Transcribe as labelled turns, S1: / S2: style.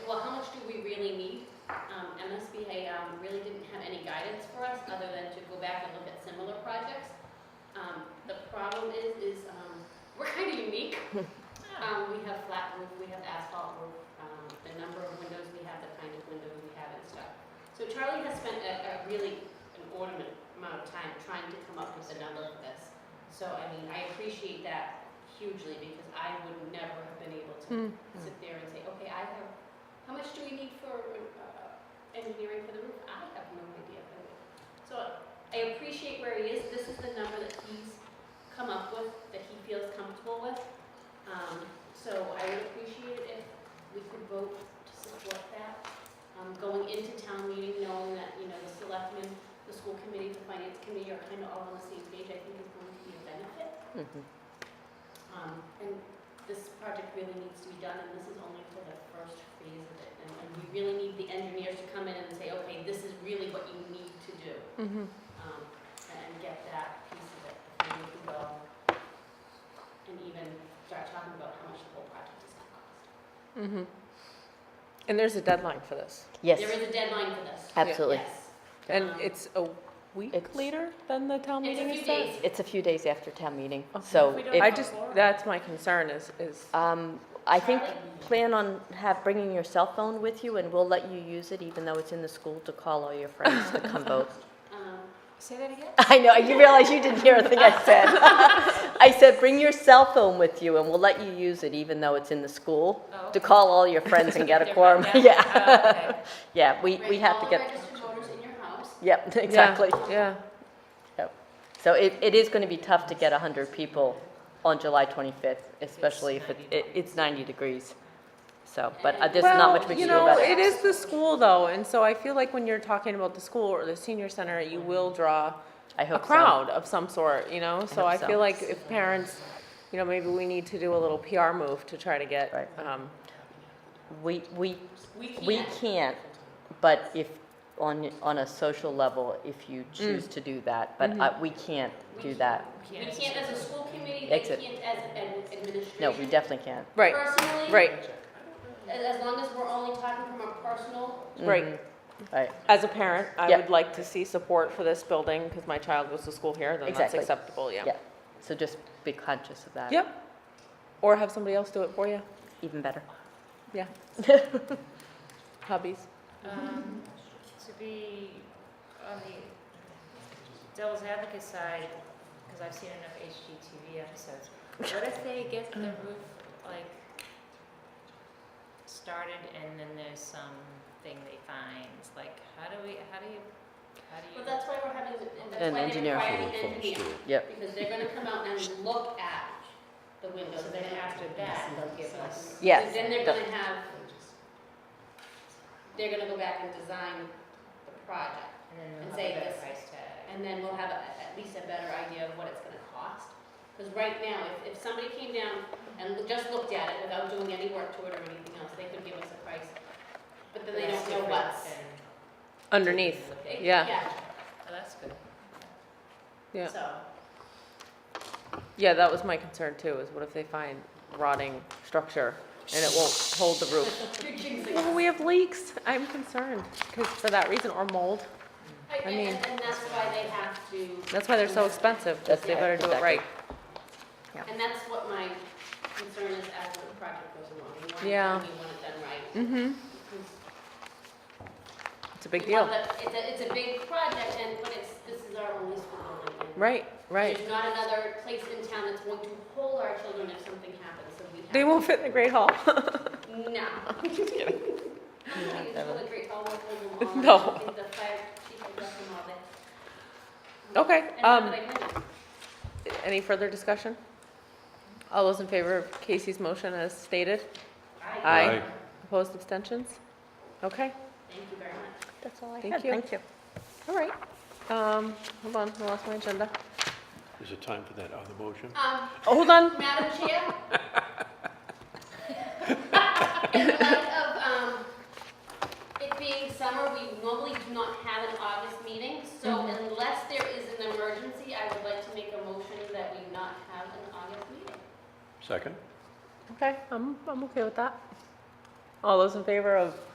S1: Um, back and look at similar projects. Um, The problem is, is um, we're kind of unique. Um, We have flat roof, we have asphalt roof, um, the number of windows we have, the kind of windows we have and stuff. So Charlie has spent a a really an ornament amount of time trying to come up with a number for this. So, I mean, I appreciate that hugely because I would never have been able
S2: Hmm. Mm-hmm.
S1: to sit there and say, okay, I have, how much do we need for uh, engineering for the roof? I have no idea. So I appreciate where he is. This is the number that he's come up with, that he feels comfortable with. Um, So I would appreciate it if we could vote to support that. Um, Going into town meeting, knowing that, you know, the selectmen, the school committee, the finance committee are kind of all on the same page, I think is going to be a benefit.
S2: Mm-hmm.
S1: Um, And this project really needs to be done, and this is only for the first phase of it. And- And we really need the engineers to come in and say, okay, this is really what you need to do
S2: Mm-hmm.
S1: um, and get that piece of it before we can go and even start talking about how much the whole project is gonna cost.
S2: Mm-hmm. And there's a deadline for this.
S1: There
S3: Yes,
S1: is a deadline for this.
S3: absolutely.
S1: Yes.
S2: And
S1: Um,
S2: it's a week
S3: It's-
S2: later than the town
S1: It's a
S2: meeting
S1: few
S2: is set?
S1: days.
S3: It's a few days after town meeting,
S2: Okay.
S3: so
S1: We don't
S2: I
S3: if,
S2: just, that's my concern is, is,
S3: um, I think,
S1: Charlotte?
S3: plan on have, bringing your cell phone with you and we'll let you use it even though it's in the school to call all your friends to come vote.
S1: Um,
S4: Say that again?
S3: I know, you realize you didn't hear a thing I said. I said, bring your cell phone with you and we'll let you use it even though it's in the school
S4: Oh.
S3: to call all your friends and get a quorum.
S4: Yeah.
S3: Yeah,
S4: Oh, okay.
S3: yeah, we, we
S1: right,
S3: have to
S1: All the
S3: get,
S1: registered voters in your house.
S3: yep,
S2: yeah,
S3: exactly.
S2: yeah.
S3: Yep. So it, it is going to be tough to get 100 people on July 25th, especially if it, it- it's 90 degrees. So, but uh, there's not much we can do
S2: Well,
S3: about
S2: you know, it
S3: it.
S2: is the school though, and so I feel like when you're talking about the school or the senior center, you will draw
S3: Mm-hmm. I
S2: a
S3: hope so.
S2: crowd of some sort, you know? So
S3: hope
S2: I
S3: so.
S2: feel like if parents, you know, maybe we need to do a little PR move to try to get,
S3: Right.
S2: um,
S3: We, we,
S1: We
S3: we
S1: can't.
S3: can't, but if, on, on a social level, if you
S2: Mm.
S3: choose to do that, but uh,
S2: Mm-hmm.
S3: we can't
S1: We
S3: do
S1: can't.
S3: that.
S1: We can't as a school committee, we
S3: That's it.
S1: can't as an administration.
S3: No, we definitely can't.
S2: right,
S1: Personally.
S2: right,
S1: As, as long as we're only talking from a personal,
S3: Mm-hmm.
S2: right.
S3: Right,
S2: As a parent, I
S3: Yeah.
S2: would like to see support for this building because my child goes to school here, then that's
S3: Exactly.
S2: acceptable, yeah.
S3: yeah. So just be conscious of that.
S2: Yep. Or have somebody else do it for you,
S3: Even better.
S2: yeah. Hobbies.
S4: Um, To be on the devil's advocate side, because I've seen enough HGTV episodes, what if they get the roof, like, started and then there's some thing they find? Like, how do we, how do you, how do you?
S1: but that's why we're having, the- and that's
S3: An
S1: why they
S3: engineer.
S1: require the engineer.
S3: Yep.
S1: Because they're gonna come out and look at the windows,
S4: So
S1: then
S4: then
S1: after that, they'll give us.
S3: Yes.
S1: And Then they're
S3: The-
S1: gonna have, they're gonna go back and design the project,
S4: And then
S1: And
S4: we'll
S1: say
S4: have a better
S1: this.
S4: price tag.
S1: and then we'll have a- at least a better idea of what it's gonna cost. Because right now, if, if somebody came down and lo- just looked at it without doing any work to it or anything else, they could give us a price, but then they
S4: That's
S1: don't know
S4: different
S1: what's.
S4: than-
S2: Underneath,
S1: It-
S2: Yeah.
S4: Oh, that's good.
S2: Yeah.
S1: So,
S2: yeah, that was my concern too, is what if they find rotting structure and it won't hold the roof?
S1: you're jinxing
S2: Well,
S1: us.
S2: we have leaks, I'm concerned, because for that reason, or mold,
S1: I-
S2: I
S1: And,
S2: mean-
S1: and that's why they have to.
S2: that's why they're so expensive, because they
S3: That's-
S2: better do it
S3: exactly.
S2: right.
S1: And that's what my concern is as the project goes along. We want it
S2: Yeah.
S1: done, We want it done right.
S2: Mm-hmm,
S1: Because
S2: it's a big
S1: we want
S2: deal,
S1: the- It's a, it's a big project and, but it's, this is our only school building. and
S2: right, right.
S1: There's not another place in town that's going to hold our children if something happens, so we have.
S2: They won't fit in the Great Hall.
S1: No. I'm just kidding. It's really great, I'll work with them all.
S2: No.
S1: I think the fire chief will let them all there.
S2: Okay,
S1: And
S2: um,
S1: now that I mentioned-
S2: Any further discussion? All those in favor of Casey's motion as stated?
S1: I,
S2: Aye. Opposed, abstentions? Okay,
S1: thank you very much.
S3: That's all I
S2: Thank had. you. Thank
S3: you.
S2: all right. Um, hold on, I lost my agenda.
S5: Is it time for that other motion?
S1: Um,
S2: Oh, hold on.
S1: Madam Chair? In light of, um, it being summer, we normally do not have an August meeting, so unless there is an emergency, I would like to make a motion that we not have an August meeting.
S5: Second?
S2: Okay, I'm, I'm okay with that. All those in favor of